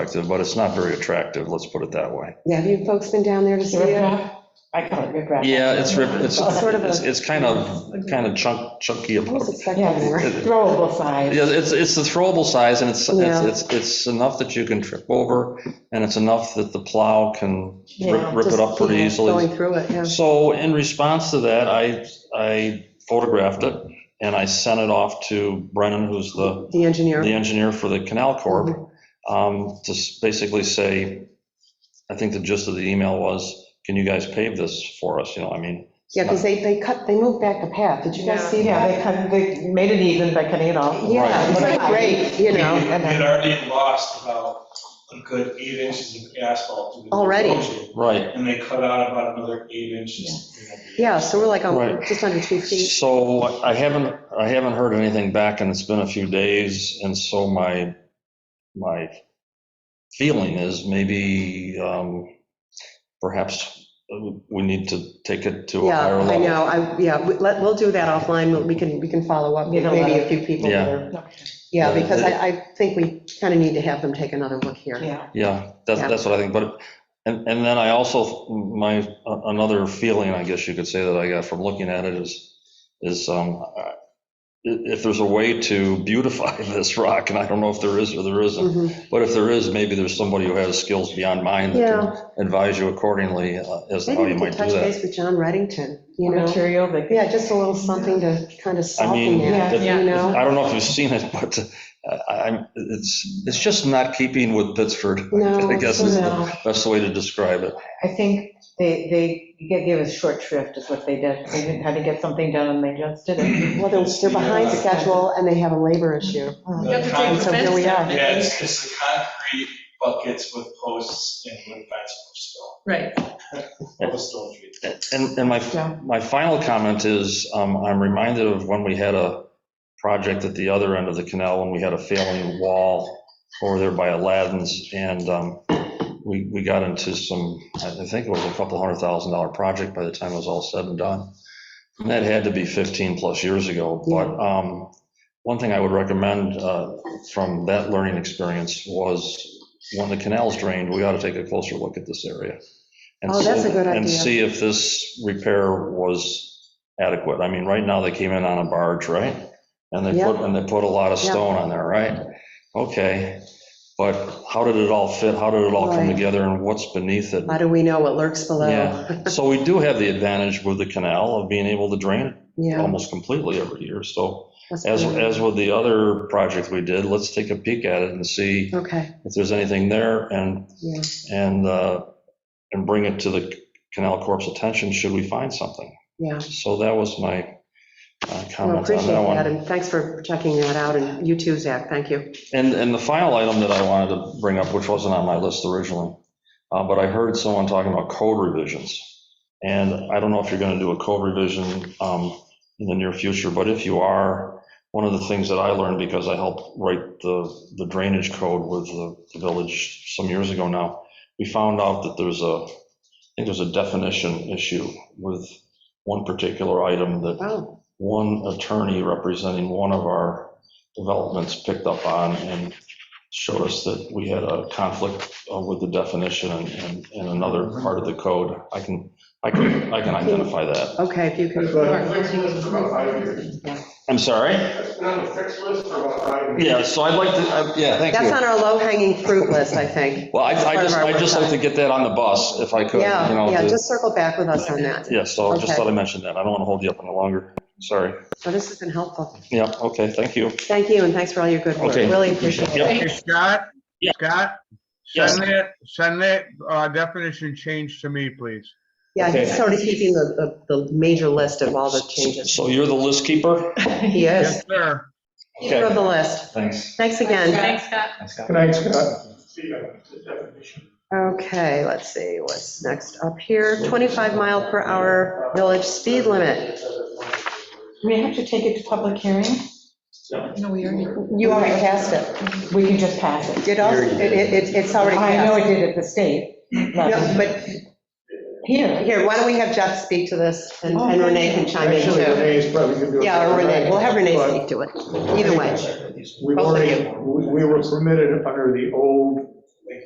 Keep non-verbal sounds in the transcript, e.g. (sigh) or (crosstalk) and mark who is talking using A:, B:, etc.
A: attractive, but it's not very attractive, let's put it that way.
B: Have you folks been down there to see it?
C: Riprap? I call it riprap.
A: Yeah, it's, rip- it's,
B: It's sort of a-
A: it's it's kind of, kind of chunk chunky.
B: I was
A: about-
B: expecting
C: Yeah,
B: more.
C: it's throwable size.
A: Yeah, it's, it's the throwable size, and it's,
B: Yeah.
A: it's, it's it's enough that you can trip over, and it's enough that the plow can
C: Yeah,
A: rip rip it up pretty
B: Just, you know,
A: easily.
B: Going through it, yeah.
A: So in response to that, I, I photographed it, and I sent it off to Brennan, who's the
B: The engineer.
A: uh,
B: Mm-hmm.
A: the engineer for the Canal Corp, um, to s- basically say, I think the gist of the email was, can you guys pave this for us? You know, I mean,
B: Yeah, because they, they cut, they moved back the path. Did you guys see
C: Yeah,
B: that?
C: they cut, they made it even by cutting it off.
B: Yeah, it's like great, you know.
C: and
D: We
C: then-
D: had already lost about a good eight inches of asphalt. due to the
B: Already?
D: erosion,
A: right.
D: And they cut out about another eight inches. you know,
B: Yeah, so we're like, oh,
A: Right.
B: just under two feet.
A: So I haven't, I haven't heard anything back, and it's been a few days, and so my, my feeling is maybe um, perhaps we need to take it to a
B: Yeah,
A: higher
B: I
A: level.
B: know, I, yeah, we- let, we'll do that offline, We'll- we can, we can follow up with
C: Get a
B: maybe a
C: letter.
B: few people.
A: Yeah.
B: there.
C: Okay,
B: Yeah, because I, I think we kind of need to have them take another look here.
C: Yeah,
A: Yeah,
B: Yeah.
A: that's, that's what I think, but, and, and then I also, my, another feeling, I guess you could say, that I got from looking at it is, is, um, i- if there's a way to beautify (laughs) this rock, and I don't know if there is or there isn't,
B: Mhm.
A: but if there is, maybe there's somebody who has skills beyond mine that can advise you accordingly uh, as to how you
B: Maybe we could
A: might do
B: touch
A: that.
B: base with John Reddington, you know?
C: material that.
B: Yeah, just a little something to kind of
A: I
B: soften
A: mean,
B: that,
A: that-
B: you know?
A: I don't know if you've seen it, but uh, I, I'm, it's, it's just not keeping with Pittsford. (laughs)
B: No,
A: I guess is
C: No.
A: the best way to describe it.
C: I think they, they g- gave us short shrift is what they did. They didn't have to get something done and they just did
B: (laughs)
C: it.
B: Well, they're, they're behind schedule and they have a labor issue.
D: The
C: Um,
E: have to take the
D: concrete-
B: So here we
E: fence down,
B: are.
E: I
D: Yeah,
E: think.
D: it's, it's the concrete buckets with posts and wood fence for stone,
E: Right,
D: (laughs) for the stone trees.
A: And, and my,
C: Yeah.
A: my final comment is, um, I'm reminded of when we had a project at the other end of the canal, when we had a failing wall over there by Aladdin's, and um, we, we got into some, I think it was a couple hundred thousand dollar project by the time it was all said and done. And that had to be 15 plus years ago, but um, one thing I would recommend uh, from that learning experience was, when the canal's drained, we ought to take a closer look at this area. and
B: Oh, that's
A: see-
B: a good
A: And
B: idea.
A: see if this repair was adequate. I mean, right now, they came in on a barge, right? And they put, and they put a lot of
B: Yeah.
A: stone on there, right? Okay, but how did it all fit? How did it all come
B: Right.
A: together and what's beneath it?
B: How do we know what lurks below?
A: Yeah, so we do have the advantage with the canal of being able to drain it
B: (laughs) Yeah.
A: almost completely every year. So
B: that's
A: as,
B: good.
A: as with the other project we did, let's take a peek at it and see
B: Okay,
A: if there's anything there and,
B: yeah,
A: and, uh, and bring it to the Canal Corp's attention should we find something.
B: yeah.
A: So that was my uh,
B: Well,
A: comment
B: appreciate
A: on that one.
B: that, and thanks for checking that out, and you too, Zach, thank you.
A: And, and the final item that I wanted to bring up, which wasn't on my list originally, uh, but I heard someone talking about code revisions. And I don't know if you're going to do a code revision um, in the near future, but if you are, one of the things that I learned because I helped write the the drainage code with the the village some years ago now, we found out that there's a, I think there's a definition issue with one particular item that
B: Wow,
A: one attorney representing one of our developments picked up on and showed us that we had a conflict uh, with the definition and- and, and another part of the code. I can, I can, I can identify that.
B: okay, if you can.
F: It's been on the fixed list for about five years.
A: I'm sorry?
F: It's been on the fixed list for about five years.
A: Yeah, so I'd like to, I- yeah, thank
B: That's
A: you.
B: on our low-hanging fruit list, I think.
A: Well, I I just, I'd just like to
B: think.
A: get that on the bus if I could, you
B: Yeah,
A: know.
B: yeah,
A: to-
B: just circle back with us on that.
A: Yeah, so I
B: Okay.
A: just thought I mentioned that. I don't want to hold you up any longer. Sorry.
B: So this has been helpful.
A: Yeah, okay, thank you.
B: Thank you, and thanks for all your good work,
A: Okay.
B: really appreciate it.
A: Yep.
G: Hey, Scott?
A: Yeah.
G: Scott?
A: Yes.
G: Send that, send that uh, definition change to me, please.
B: Yeah, he's
A: Okay.
B: sort of keeping the, the the major list of all the changes.
A: So you're the list keeper?
B: He is,
G: Yes, sir.
B: keeper of the list.
A: Thanks.
B: Thanks again.
E: thanks, Scott.
F: Good night, Scott.
D: See, that's the definition.
B: Okay, let's see, what's next up here? 25 mile per hour village speed limit.
C: We have to take it to public hearing?
E: No, we already.
B: You already passed it.
C: We can just pass it.
B: It also, it, it- it's already
C: I know
B: passed.
C: it did at the state.
B: No,
C: level.
B: But
C: Here,
B: here, why don't we have Jeff speak to this and and
C: Oh,
B: Renee can chime in
F: Actually,
B: too?
F: Renee is probably going to do it.
B: Yeah, or Renee, we'll have Renee
F: But
B: speak to it, either way.
F: We
B: Both of
F: already, we we were permitted under the old